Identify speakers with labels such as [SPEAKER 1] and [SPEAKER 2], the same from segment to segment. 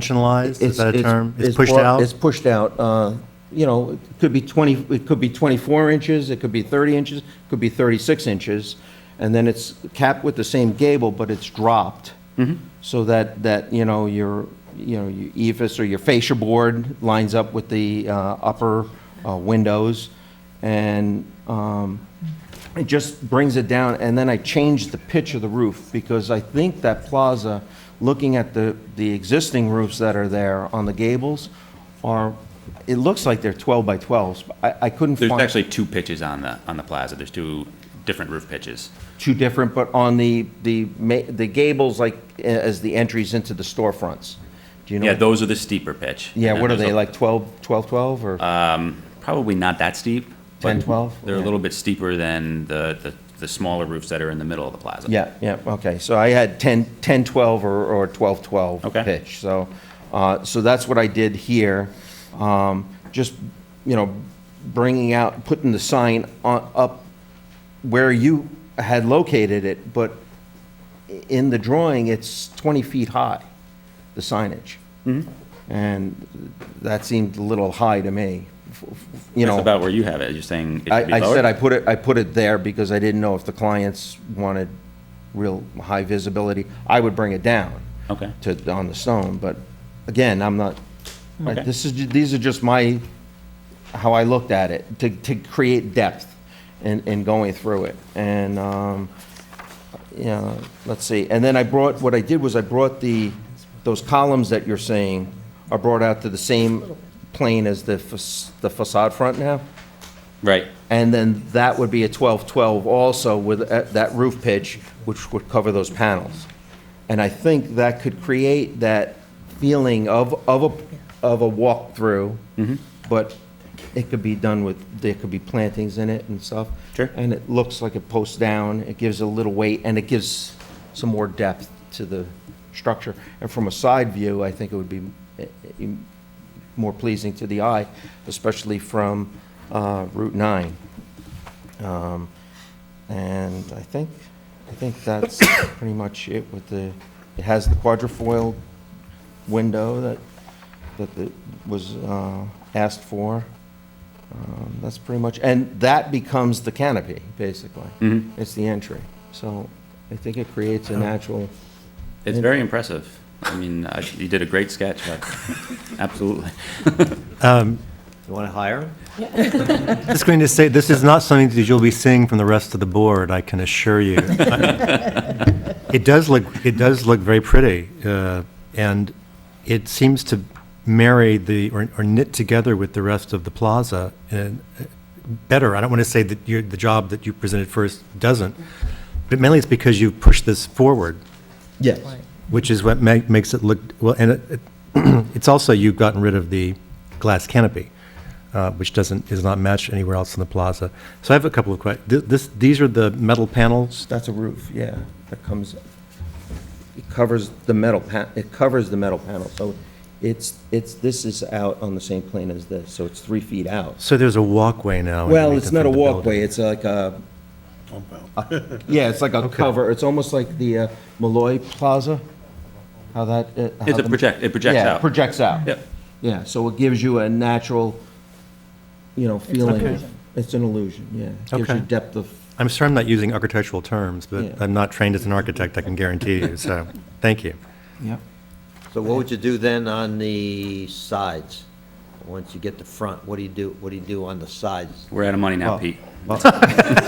[SPEAKER 1] Three-dimensionalized, is that a term? It's pushed
[SPEAKER 2] brought-
[SPEAKER 1] out?
[SPEAKER 2] It's pushed out, uh, you know, it could be 20, it could be 24 inches, it could be 30 inches, it could be 36 inches, and then it's capped with the same gable, but it's dropped,
[SPEAKER 1] Mm-hmm.
[SPEAKER 2] so that, that, you know, your, you know, your ephes or your fascia board lines up with the uh, upper uh, windows, and um, it just brings it down, and then I changed the pitch of the roof, because I think that plaza, looking at the, the existing roofs that are there on the gables, are, it looks like they're 12 by 12s. I, I couldn't
[SPEAKER 3] There's
[SPEAKER 2] find
[SPEAKER 3] actually two pitches on the, on the plaza. There's two different roof pitches.
[SPEAKER 2] two different, but on the, the, ma- the gables, like, a- as the entries into the storefronts. Do you know?
[SPEAKER 3] Yeah, those are the steeper pitch.
[SPEAKER 2] Yeah,
[SPEAKER 3] And then
[SPEAKER 2] what are
[SPEAKER 3] there's
[SPEAKER 2] they,
[SPEAKER 3] a-
[SPEAKER 2] like 12, 12, 12,
[SPEAKER 3] Uh,
[SPEAKER 2] or
[SPEAKER 3] Probably not that steep.
[SPEAKER 2] 10,
[SPEAKER 3] but
[SPEAKER 2] 12?
[SPEAKER 3] They're a
[SPEAKER 2] Yeah.
[SPEAKER 3] little bit steeper than the, the, the smaller roofs that are in the middle of the plaza.
[SPEAKER 2] Yeah, yeah, okay, so I had 10, 10, 12, or, or 12, 12
[SPEAKER 3] Okay.
[SPEAKER 2] pitch, so, uh, so that's what I did here. Um, Just, you know, bringing out, putting the sign on, up where you had located it, but i- in the drawing, it's 20 feet high, the signage.
[SPEAKER 3] Mm-hmm.
[SPEAKER 2] And that seemed a little high to me, f- f- you know.
[SPEAKER 3] That's about where you have it. You're saying it should be
[SPEAKER 2] I, I
[SPEAKER 3] lower?
[SPEAKER 2] said I put it, I put it there because I didn't know if the clients wanted real high visibility. I would bring it down.
[SPEAKER 3] Okay.
[SPEAKER 2] To, on the stone, but again, I'm not,
[SPEAKER 3] Okay.
[SPEAKER 2] this is, ju- these are just my, how I looked at it, to, to create depth in, in going through it. And, um, you know, let's see, and then I brought, what I did was I brought the, those columns that you're saying are brought out to the same plane as the fac- the facade front now?
[SPEAKER 3] Right.
[SPEAKER 2] And then that would be a 12-12 also with uh, that roof pitch, which would cover those panels. And I think that could create that feeling of, of a, of a walkthrough. But it could be done with, there could be plantings in it and stuff.
[SPEAKER 3] Sure.
[SPEAKER 2] And it looks like it posts down, it gives a little weight, and it gives some more depth to the structure. And from a side view, I think it would be eh, eh, more pleasing to the eye, especially from uh, Route 9. Um, And I think, I think that's pretty much it with the, it has the quadrifoil window that, that the- was uh, asked for. Um, That's pretty much, and that becomes the canopy, basically. It's the entry. So I think it creates a natural,
[SPEAKER 3] It's very impressive. I mean, I- you did a great sketch. but- Absolutely.
[SPEAKER 4] You want to hire him?
[SPEAKER 1] Just going to say, this is not something that you'll be seeing from the rest of the board, I can assure you. It does look, it does look very pretty, uh, and it seems to marry the, or or knit together with the rest of the plaza and uh, better. I don't want to say that your, the job that you presented first doesn't, but mainly it's because you've pushed this forward.
[SPEAKER 2] yes,
[SPEAKER 1] Which is what ma- makes it look, well, and it- it- it's also, you've gotten rid of the glass canopy, uh, which doesn't, is not matched anywhere else in the plaza. So I have a couple of questions. This, these are the metal panels?
[SPEAKER 2] that's a roof, yeah, that comes, it covers the metal, pa- it covers the metal panel. So it's, it's, this is out on the same plane as this, so it's three feet out.
[SPEAKER 1] So there's a walkway now?
[SPEAKER 2] Well,
[SPEAKER 1] underneath
[SPEAKER 2] it's
[SPEAKER 1] the
[SPEAKER 2] not a
[SPEAKER 1] front of the
[SPEAKER 2] walkway, it's like a. Yeah, it's like a cover, it's almost like the uh, Malloy Plaza, how that. uh, how
[SPEAKER 3] It's a
[SPEAKER 2] the-
[SPEAKER 3] project, it projects
[SPEAKER 2] Yeah,
[SPEAKER 3] out.
[SPEAKER 2] it projects out.
[SPEAKER 3] Yep.
[SPEAKER 2] Yeah, so it gives you a natural, you know, feeling. of- It's an illusion, yeah. It Gives you
[SPEAKER 1] Okay.
[SPEAKER 2] depth of,
[SPEAKER 1] building. I'm sorry I'm not using architectural terms,
[SPEAKER 2] Yeah.
[SPEAKER 1] but I'm not trained as an architect, I can guarantee you, so, thank you.
[SPEAKER 2] yeah.
[SPEAKER 4] So what would you do then on the sides? Once you get the front, what do you do, what do you do on the sides?
[SPEAKER 3] We're out of money now, Pete.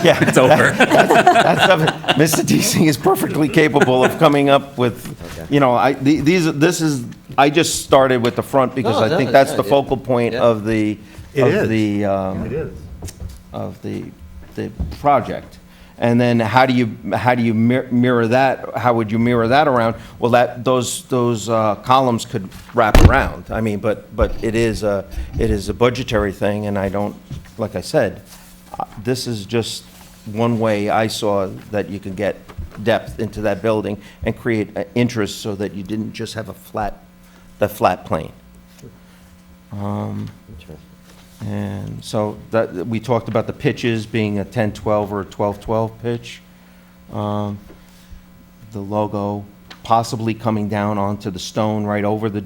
[SPEAKER 2] Yeah.
[SPEAKER 3] It's over.
[SPEAKER 2] That's something- Mr. DC is perfectly capable of coming up with, you know, I, the- these, this is, I just started with the front because
[SPEAKER 4] No,
[SPEAKER 2] I
[SPEAKER 4] no,
[SPEAKER 2] think that's the
[SPEAKER 4] yeah,
[SPEAKER 2] focal point
[SPEAKER 4] yeah.
[SPEAKER 2] of the,
[SPEAKER 1] It
[SPEAKER 2] of
[SPEAKER 1] is.
[SPEAKER 2] the, um, of the, the project. And then how do you, how do you mir- mirror that, how would you mirror that around? Well, that, those, those uh, columns could wrap around. I mean, but, but it is a, it is a budgetary thing, and I don't, like I said, uh, this is just one way I saw that you could get depth into that building and create uh, interest so that you didn't just have a flat, the flat plane. And so that, we talked about the pitches being a 10-12 or a 12-12 pitch. Um, The logo possibly coming down onto the stone right over the